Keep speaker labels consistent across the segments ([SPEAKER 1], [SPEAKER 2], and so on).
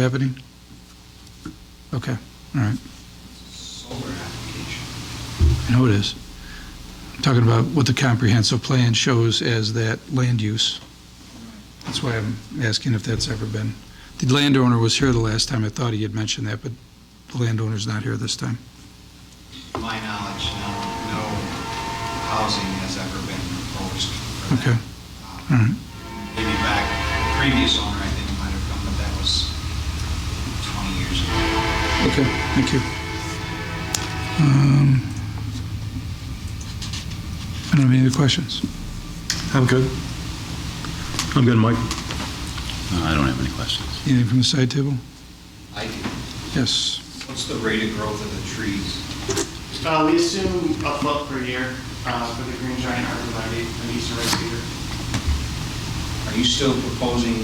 [SPEAKER 1] happening? Okay, all right.
[SPEAKER 2] solar application.
[SPEAKER 1] I know it is. I'm Talking about what the comprehensive plan shows as that land use. That's why I'm asking if that's ever been. The landowner was here the last time. I thought he had mentioned that, but the landowner's not here this time.
[SPEAKER 2] To my knowledge, no, no housing has ever been proposed for that.
[SPEAKER 1] Okay.
[SPEAKER 2] Uh,
[SPEAKER 1] All right,
[SPEAKER 2] Maybe back, previous owner, I think, might have done, but that was 20 years ago.
[SPEAKER 1] okay, thank you. Um, I don't have any other questions.
[SPEAKER 3] I'm good. I'm good, Mike.
[SPEAKER 4] Uh, I don't have any questions.
[SPEAKER 1] Anything from the side table?
[SPEAKER 2] I do.
[SPEAKER 1] Yes.
[SPEAKER 2] What's the rate of growth of the trees?
[SPEAKER 5] Uh, we assume a foot per year, uh, for the green giant arborvitae and eastern red cedar.
[SPEAKER 2] Are you still proposing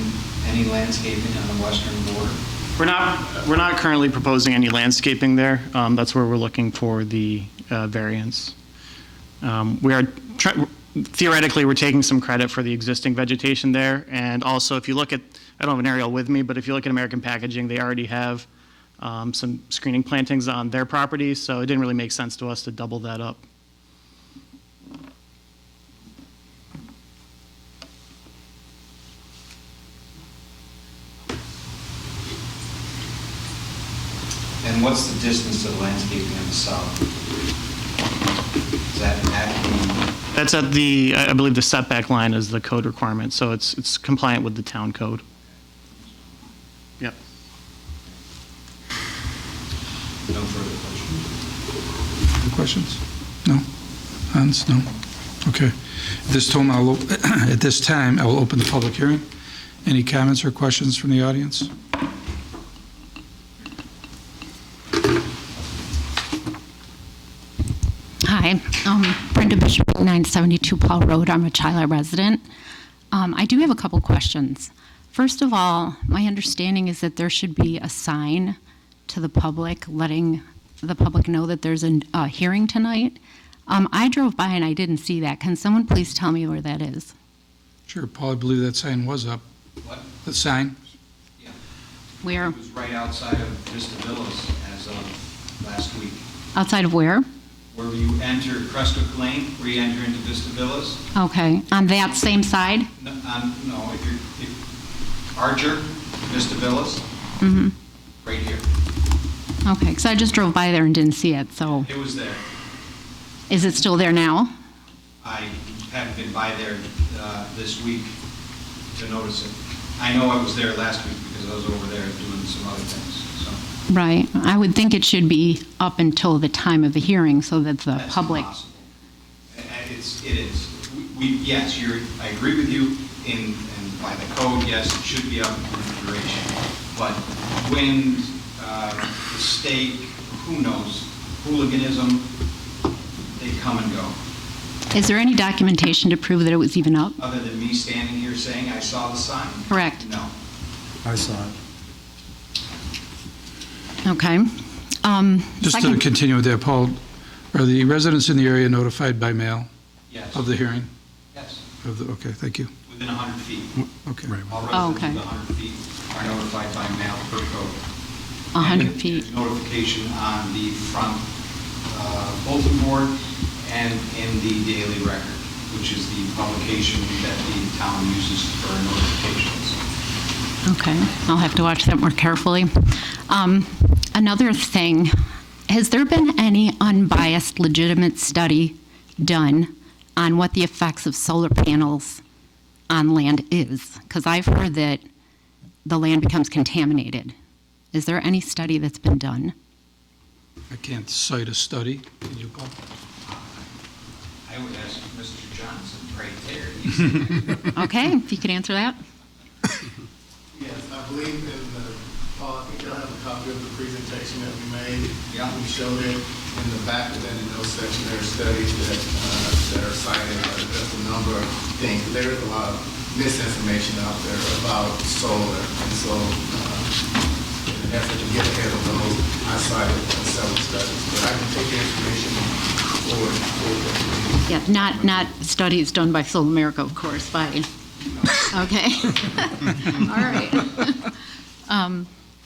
[SPEAKER 2] any landscaping on the western border?
[SPEAKER 6] We're not, we're not currently proposing any landscaping there. Um, That's where we're looking for the uh, variance. Um, We are, tr- theoretically, we're taking some credit for the existing vegetation there. And also, if you look at, I don't have an aerial with me, but if you look at American Packaging, they already have um, some screening plantings on their property, so it didn't really make sense to us to double that up.
[SPEAKER 2] And what's the distance to the landscaping on the south? Is that at,
[SPEAKER 6] That's at the, I I believe the setback line is the code requirement, so it's it's compliant with the town code. Yep.
[SPEAKER 2] no further
[SPEAKER 1] Any
[SPEAKER 2] questions?
[SPEAKER 1] Questions? No? Hans, no? Okay. At This time, I'll, o- at this time, I will open the public hearing. Any comments or questions from the audience?
[SPEAKER 7] Hi, um, Brenda Bishop, 972 Paul Road. I'm a Chyla resident. Um, I do have a couple questions. First of all, my understanding is that there should be a sign to the public letting the public know that there's an- a hearing tonight. Um, I drove by and I didn't see that. Can someone please tell me where that is?
[SPEAKER 1] Sure, Paul, I believe that sign was up.
[SPEAKER 2] What?
[SPEAKER 1] The sign?
[SPEAKER 7] Where?
[SPEAKER 2] It was right outside of Vista Villas as of last week.
[SPEAKER 7] Outside of where?
[SPEAKER 2] Where you enter Crestwood Lane, where you enter into Vista Villas,
[SPEAKER 7] Okay, on that same side?
[SPEAKER 2] no, um, no, if you're, if Archer, Vista Villas,
[SPEAKER 7] Mm-hmm.
[SPEAKER 2] right here.
[SPEAKER 7] Okay, because I just drove by there and didn't see it, so
[SPEAKER 2] It was there.
[SPEAKER 7] is it still there now?
[SPEAKER 2] I haven't been by there uh, this week to notice it. I know I was there last week because I was over there doing some other things, so.
[SPEAKER 7] Right. I would think it should be up until the time of the hearing so that the
[SPEAKER 2] That's
[SPEAKER 7] public,
[SPEAKER 2] impossible. And- and It's, it is. We, yes, you're, I agree with you in, and by the code, yes, it should be up for duration. But wind, uh, the stake, who knows, hooliganism, they come and go.
[SPEAKER 7] is there any documentation to prove that it was even up?
[SPEAKER 2] Other than me standing here saying I saw the sign?
[SPEAKER 7] Correct.
[SPEAKER 2] No.
[SPEAKER 3] I saw it.
[SPEAKER 7] Okay. Um,
[SPEAKER 1] Just to
[SPEAKER 7] second-
[SPEAKER 1] continue with that, Paul, are the residents in the area notified by mail
[SPEAKER 2] Yes,
[SPEAKER 1] of the hearing?
[SPEAKER 2] yes,
[SPEAKER 1] Of the, okay, thank you.
[SPEAKER 2] within 100 feet.
[SPEAKER 1] Okay.
[SPEAKER 2] All
[SPEAKER 7] Oh,
[SPEAKER 2] residents
[SPEAKER 7] okay.
[SPEAKER 2] within 100 feet are notified by mail per code.
[SPEAKER 7] 100
[SPEAKER 2] And
[SPEAKER 7] feet.
[SPEAKER 2] Notification on the front uh, bulletin board and in the daily record, which is the publication that the town uses for notifications.
[SPEAKER 7] Okay. I'll have to watch that more carefully. Um, Another thing, has there been any unbiased legitimate study done on what the effects of solar panels on land is? Because I've heard that the land becomes contaminated. Is there any study that's been done?
[SPEAKER 1] I can't cite a study. Can you, Paul?
[SPEAKER 2] I would ask Mr. Johnson right there. He's-
[SPEAKER 7] Okay, if you could answer that.
[SPEAKER 8] Yes, I believe in the, Paul, I think I have a copy of the presentation that we made.
[SPEAKER 2] Yeah.
[SPEAKER 8] We showed it in the back, and then in those section, there are studies that, uh, that are cited, uh, there's a number of things. There is a lot of misinformation out there about solar, and so, uh, in an effort to get ahead of those, I cited several studies. But I can take the information forward, forward.
[SPEAKER 7] Yeah, not, not studies done by Soul America, of course, by, okay. All right. Um,